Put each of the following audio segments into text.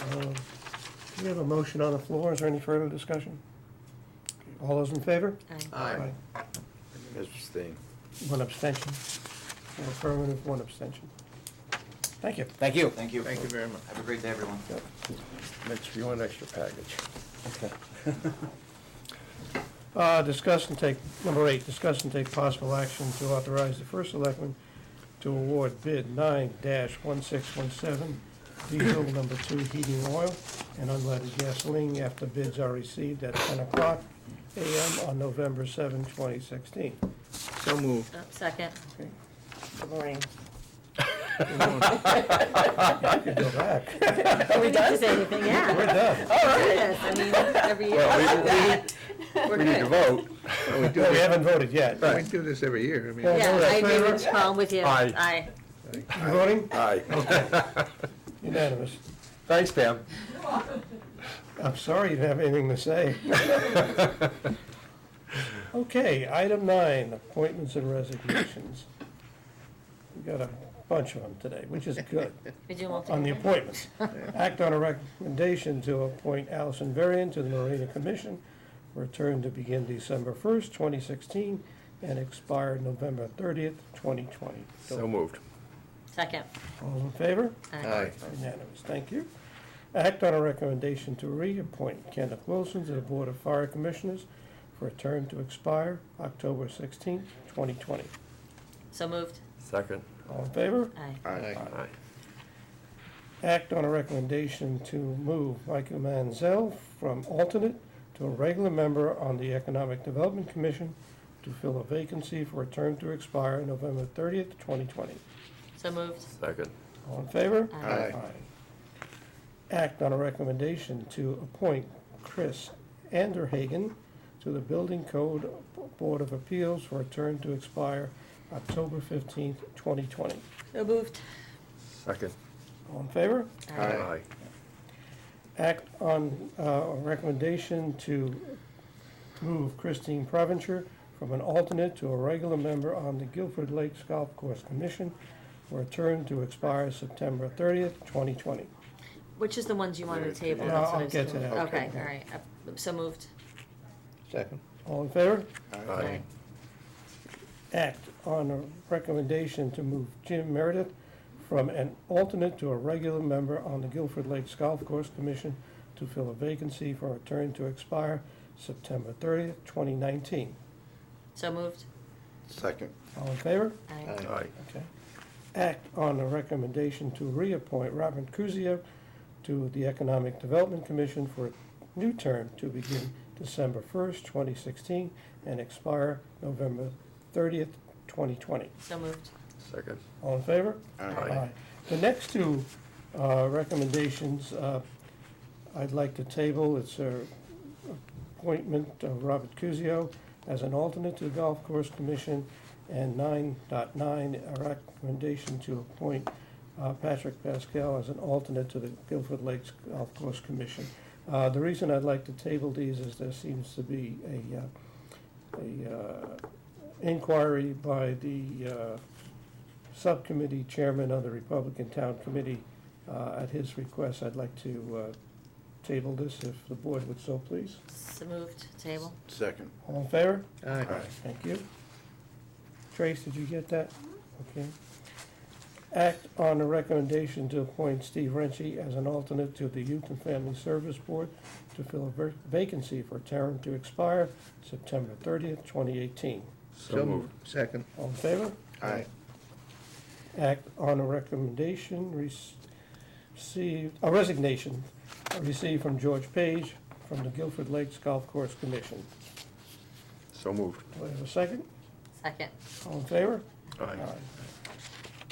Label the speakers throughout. Speaker 1: Uh, We have a motion on the floor. Is there any further discussion? All those in favor?
Speaker 2: Aye.
Speaker 3: Aye. Abstain.
Speaker 1: One abstention. Four affirmative, one abstention. Thank you.
Speaker 4: Thank you.
Speaker 5: Thank you.
Speaker 3: Thank you very much.
Speaker 5: Have a great day, everyone.
Speaker 3: Mitch, you want an extra package?
Speaker 1: Uh, Discuss and take, number eight, discuss and take possible action to authorize the first selectman to award bid nine one six one seven diesel number two heating oil and unleaded gasoline after bids are received at ten o'clock AM on November 7, twenty sixteen.
Speaker 3: So moved.
Speaker 2: Uh, Second.
Speaker 1: Okay.
Speaker 2: Good morning.
Speaker 1: You can go back.
Speaker 2: Are we done? Say anything, yeah.
Speaker 1: We're done.
Speaker 2: Yes, I mean, every year.
Speaker 3: Well,
Speaker 2: We're
Speaker 3: we, we need to
Speaker 2: good.
Speaker 3: vote. We do
Speaker 1: We
Speaker 3: this-
Speaker 1: haven't voted yet.
Speaker 3: we do this every year. I mean,
Speaker 1: Yeah.
Speaker 2: Yeah,
Speaker 1: All
Speaker 2: I
Speaker 1: in
Speaker 2: agree
Speaker 1: favor?
Speaker 2: with Tom, with you.
Speaker 4: Aye.
Speaker 2: Aye.
Speaker 1: You voting?
Speaker 3: Aye.
Speaker 1: Unanimous.
Speaker 4: Thanks, Pam.
Speaker 1: I'm sorry you didn't have anything to say. Okay, item nine, appointments and resignations. We've got a bunch of them today, which is good.
Speaker 2: Did you want to?
Speaker 1: On the appointments, act on a recommendation to appoint Allison Varian to the Marina Commission, return to begin December 1st, 2016, and expire November 30th, 2020.
Speaker 3: So moved.
Speaker 2: Second.
Speaker 1: All in favor?
Speaker 3: Aye.
Speaker 1: Unanimous, thank you. Act on a recommendation to reappoint Kenneth Wilson to the Board of Fire Commissioners for a term to expire October sixteenth, twenty twenty.
Speaker 2: So moved.
Speaker 4: Second.
Speaker 1: All in favor?
Speaker 2: Aye.
Speaker 3: Aye.
Speaker 4: Aye.
Speaker 1: Act on a recommendation to move Michael Manzel from alternate to a regular member on the Economic Development Commission to fill a vacancy for a term to expire November thirtieth, twenty twenty.
Speaker 2: So moved.
Speaker 4: Second.
Speaker 1: All in favor?
Speaker 2: Aye.
Speaker 3: Aye.
Speaker 1: Act on a recommendation to appoint Chris Anderhagen to the Building Code Board of Appeals for a term to expire October fifteenth, twenty twenty.
Speaker 2: So moved.
Speaker 4: Second.
Speaker 1: All in favor?
Speaker 3: Aye.
Speaker 1: Act on uh, a recommendation to move Christine Preventure from an alternate to a regular member on the Guilford Lakes Golf Course Commission for a term to expire September thirtieth, twenty twenty.
Speaker 2: Which is the ones you wanted to table?
Speaker 1: Yeah,
Speaker 2: That's what
Speaker 1: I'll
Speaker 2: I was
Speaker 1: get to
Speaker 2: doing.
Speaker 1: that.
Speaker 2: Okay, all right. Uh, So moved.
Speaker 3: Second.
Speaker 1: All in favor?
Speaker 2: Aye.
Speaker 1: act on a recommendation to move Jim Meredith from an alternate to a regular member on the Guilford Lakes Golf Course Commission to fill a vacancy for a term to expire September thirtieth, twenty nineteen.
Speaker 2: So moved.
Speaker 3: Second.
Speaker 1: All in favor?
Speaker 2: Aye.
Speaker 4: Aye.
Speaker 1: Okay. Act on a recommendation to reappoint Robert Kuzia to the Economic Development Commission for a new term to begin December first, twenty sixteen, and expire November thirtieth, twenty twenty.
Speaker 2: So moved.
Speaker 4: Second.
Speaker 1: All in favor?
Speaker 3: Aye.
Speaker 1: The next two uh, recommendations, uh, I'd like to table, it's a appointment of Robert Cusio as an alternate to the Golf Course Commission, and 9.9, a recommendation to appoint uh, Patrick Pascal as an alternate to the Guilford Lakes Golf Course Commission. Uh, The reason I'd like to table these is there seems to be a, uh, a uh, inquiry by the uh, Subcommittee Chairman of the Republican Town Committee. Uh, At his request, I'd like to uh, table this if the board would so please.
Speaker 2: So moved. Table.
Speaker 3: Second.
Speaker 1: All in favor?
Speaker 3: Aye.
Speaker 1: Thank you. Trace, did you get that? Okay. Act on a recommendation to appoint Steve Renshie as an alternate to the Youth and Family Service Board to fill a ver- vacancy for a term to expire September thirtieth, twenty eighteen.
Speaker 4: So moved.
Speaker 3: Second.
Speaker 1: All in favor?
Speaker 3: Aye.
Speaker 1: act on a recommendation received, a resignation received from George Page from the Guilford Lakes Golf Course Commission.
Speaker 4: So moved.
Speaker 1: Do I have a second?
Speaker 2: Second.
Speaker 1: All in favor?
Speaker 4: Aye.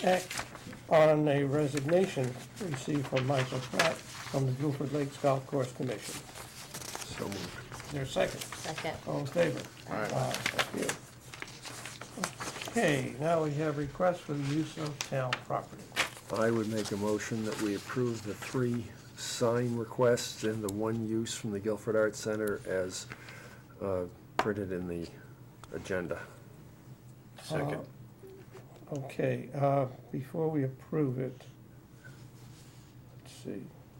Speaker 1: Act on a resignation received from Michael Pratt from the Guilford Lakes Golf Course Commission.
Speaker 4: So moved.
Speaker 1: Is there a second?
Speaker 2: Second.
Speaker 1: All in favor?
Speaker 3: Aye.
Speaker 1: Thank you. Okay, now we have requests for the use of town property.
Speaker 4: I would make a motion that we approve the three sign requests and the one use from the Guilford Arts Center as uh, printed in the agenda.
Speaker 3: Second.
Speaker 1: Okay, uh, before we approve it, let's see.